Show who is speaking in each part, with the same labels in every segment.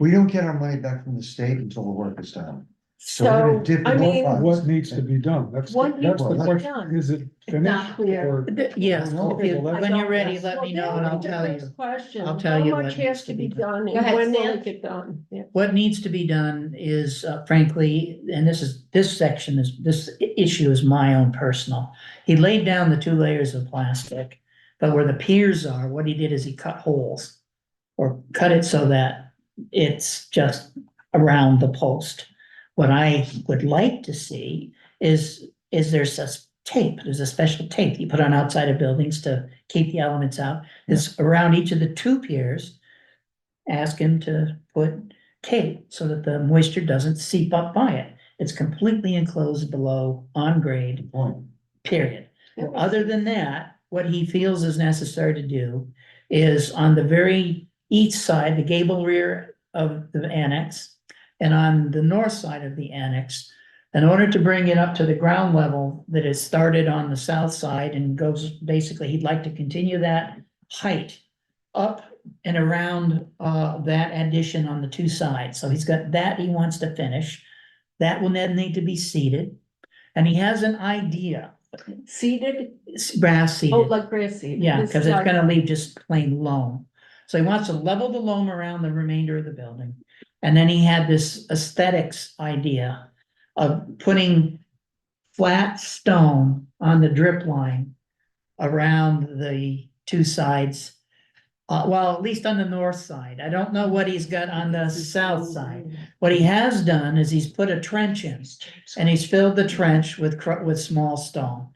Speaker 1: We don't get our money back from the state until the work is done. So we're
Speaker 2: So,
Speaker 1: gonna dip
Speaker 2: I
Speaker 1: in more
Speaker 2: mean,
Speaker 1: funds.
Speaker 3: What needs to be done? That's, the-
Speaker 2: What
Speaker 3: that's
Speaker 1: needs to
Speaker 3: the
Speaker 1: be
Speaker 3: question.
Speaker 2: done?
Speaker 3: Is it
Speaker 4: It's
Speaker 3: finished
Speaker 4: not clear.
Speaker 3: or?
Speaker 4: Th- Yes,
Speaker 2: Oh,
Speaker 1: I don't know.
Speaker 4: if you-
Speaker 3: Well,
Speaker 4: when
Speaker 2: I
Speaker 4: you're
Speaker 2: don't-
Speaker 4: ready,
Speaker 2: yes.
Speaker 4: let
Speaker 2: Well,
Speaker 4: me know
Speaker 2: then
Speaker 4: and I'll
Speaker 2: the
Speaker 4: tell
Speaker 2: next
Speaker 4: you.
Speaker 2: Question.
Speaker 4: I'll tell you
Speaker 2: How
Speaker 4: what
Speaker 2: much
Speaker 4: needs
Speaker 2: has
Speaker 4: to
Speaker 2: to
Speaker 4: be
Speaker 2: be done
Speaker 4: Go
Speaker 2: and
Speaker 4: ahead,
Speaker 2: when will
Speaker 4: Stan.
Speaker 2: it get done? Yeah.
Speaker 4: What needs to be done is uh, frankly, and this is, this section is, this i- issue is my own personal. He laid down the two layers of plastic, but where the piers are, what he did is he cut holes. Or cut it so that it's just around the post. What I would like to see is, is there's a s- tape, there's a special tape you put on outside of buildings to keep the elements out. It's around each of the two piers. Ask him to put tape so that the moisture doesn't seep up by it. It's completely enclosed below on grade,
Speaker 1: Point.
Speaker 4: period. Other than that, what he feels is necessary to do is on the very east side, the gable rear of the annex, and on the north side of the annex, in order to bring it up to the ground level that is started on the south side and goes, basically, he'd like to continue that height up and around uh that addition on the two sides. So he's got that he wants to finish. That will then need to be seeded. And he has an idea,
Speaker 2: Seeded,
Speaker 4: s- grass
Speaker 2: oh,
Speaker 4: seeded.
Speaker 2: like grass seed.
Speaker 4: Yeah,
Speaker 2: This
Speaker 4: because
Speaker 2: is
Speaker 4: it's
Speaker 2: like-
Speaker 4: gonna leave just plain loam. So he wants to level the loam around the remainder of the building. And then he had this aesthetics idea of putting flat stone on the drip line around the two sides. Uh, well, at least on the north side. I don't know what he's got on the south side. What he has done is he's put a trench in. And he's filled the trench with cr- with small stone.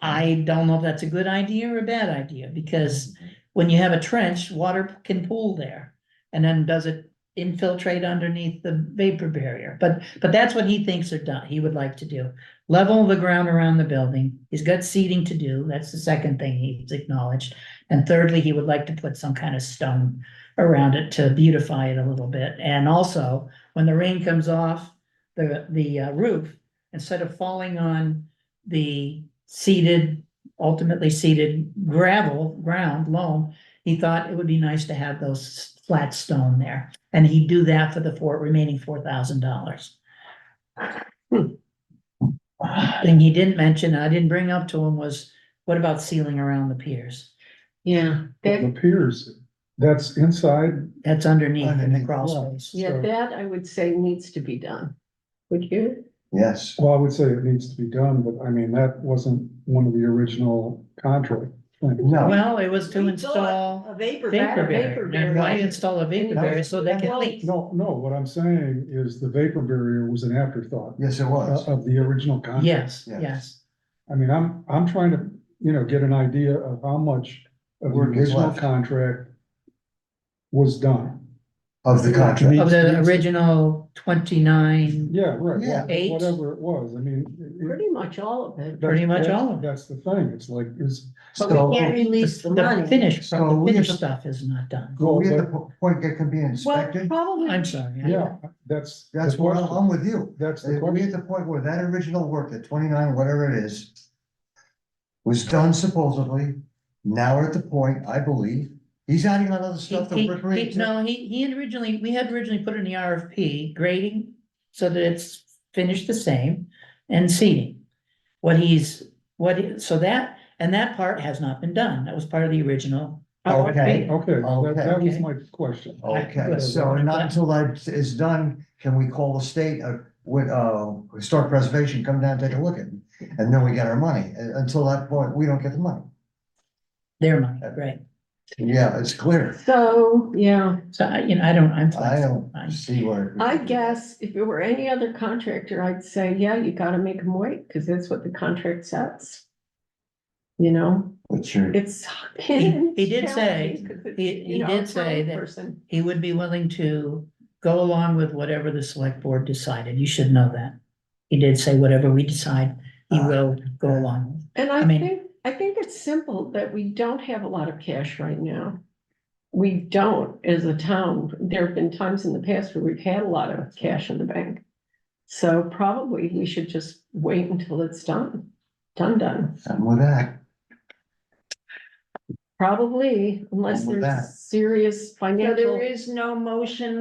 Speaker 4: I don't know if that's a good idea or a bad idea, because when you have a trench, water can pool there. And then does it infiltrate underneath the vapor barrier? But, but that's what he thinks are done, he would like to do. Level the ground around the building, he's got seeding to do, that's the second thing he's acknowledged. And thirdly, he would like to put some kind of stone around it to beautify it a little bit. And also, when the rain comes off the, the uh, roof, instead of falling on the seeded, ultimately seeded gravel, ground, loam, he thought it would be nice to have those flat stone there, and he'd do that for the four, remaining four thousand dollars. Thing he didn't mention, I didn't bring up to him was, what about sealing around the piers?
Speaker 2: Yeah, that,
Speaker 3: The piers, that's inside,
Speaker 4: That's underneath in the
Speaker 1: Underneath,
Speaker 4: crawl
Speaker 1: yeah.
Speaker 4: space.
Speaker 2: yeah, that I would say needs to be done. Would you?
Speaker 1: Yes,
Speaker 3: well, I would say it needs to be done, but I mean, that wasn't one of the original contract. things.
Speaker 1: no.
Speaker 4: Well, it was to
Speaker 2: We thought
Speaker 4: install
Speaker 2: A vapor.
Speaker 4: vapor
Speaker 2: vapor
Speaker 4: barrier, and why
Speaker 2: barrier.
Speaker 4: install a vapor
Speaker 2: That was-
Speaker 4: barrier so they
Speaker 2: that
Speaker 4: can
Speaker 2: was-
Speaker 4: leak?
Speaker 3: No, no, what I'm saying is the vapor barrier was an afterthought
Speaker 1: Yes, it
Speaker 3: uh,
Speaker 1: was.
Speaker 3: of the original contract.
Speaker 4: Yes,
Speaker 1: Yes.
Speaker 4: yes,
Speaker 3: I mean, I'm, I'm trying to, you know, get an idea of how much of the
Speaker 1: Work is
Speaker 3: original
Speaker 1: left.
Speaker 3: contract was done.
Speaker 1: Of the
Speaker 3: Me-
Speaker 1: contract.
Speaker 4: of the
Speaker 3: Needs-
Speaker 4: original twenty-nine
Speaker 3: Yeah, right,
Speaker 1: Yeah.
Speaker 3: wha-
Speaker 4: Eight.
Speaker 3: whatever it was, I mean. it- it-
Speaker 2: Pretty much all of it.
Speaker 3: that's-
Speaker 4: Pretty much
Speaker 3: that's-
Speaker 4: all of it.
Speaker 3: That's the thing, it's like, is,
Speaker 1: So,
Speaker 2: release
Speaker 4: The finish,
Speaker 1: So
Speaker 4: the
Speaker 1: we
Speaker 4: finished
Speaker 1: have-
Speaker 4: stuff is not done.
Speaker 1: we at the po- point that can be
Speaker 2: Well,
Speaker 1: inspected,
Speaker 2: probably.
Speaker 4: I'm sorry. I-
Speaker 3: yeah, that's. the
Speaker 1: that's where I'm-
Speaker 3: question.
Speaker 1: I'm with you.
Speaker 3: That's the
Speaker 1: If we
Speaker 3: question,
Speaker 1: at the point where that original work, the twenty-nine, whatever it is, was done supposedly, now we're at the point, I believe, he's adding on other
Speaker 4: He-
Speaker 1: stuff that
Speaker 4: he-
Speaker 1: we're
Speaker 4: he-
Speaker 1: creating.
Speaker 4: No, he, he had originally, we had originally put in the RFP grading so that it's finished the same and seating. What he's, what, he- so that, and that part has not been done. That was part of the original.
Speaker 1: Okay.
Speaker 4: RFP.
Speaker 3: okay, that, that was
Speaker 4: Okay.
Speaker 3: my question.
Speaker 1: Okay, so not until that is done, can we call the state, uh, with, uh, historic preservation, come down, take a look at it, and then we get our money. Uh, Until that point, we don't get the money.
Speaker 4: Their money, right.
Speaker 1: Yeah, it's clear.
Speaker 2: So, yeah,
Speaker 4: So I, you know, I don't, I'm
Speaker 1: I
Speaker 4: flexible.
Speaker 1: don't
Speaker 4: I-
Speaker 1: see where.
Speaker 2: I
Speaker 4: Mm-hmm.
Speaker 2: guess if it were any other contractor, I'd say, yeah, you gotta make them wait, because that's what the contract says. You know,
Speaker 1: What's your,
Speaker 2: it's.
Speaker 4: He- he did say-
Speaker 2: It's challenging 'cause it's,
Speaker 4: he-
Speaker 2: you
Speaker 4: he
Speaker 2: know,
Speaker 4: did
Speaker 2: a
Speaker 4: say
Speaker 2: talent
Speaker 4: that-
Speaker 2: person.
Speaker 4: He would be willing to go along with whatever the select board decided. You should know that. He did say whatever we decide, he will go along with.
Speaker 2: And I
Speaker 4: I mean-
Speaker 2: think, I think it's simple that we don't have a lot of cash right now. We don't as a town. There have been times in the past where we've had a lot of cash in the bank. So probably we should just wait until it's done, done, done.
Speaker 1: I'm with that.
Speaker 2: Probably unless
Speaker 1: I'm with that.
Speaker 2: there's serious
Speaker 5: So
Speaker 2: financial.
Speaker 5: there is no motion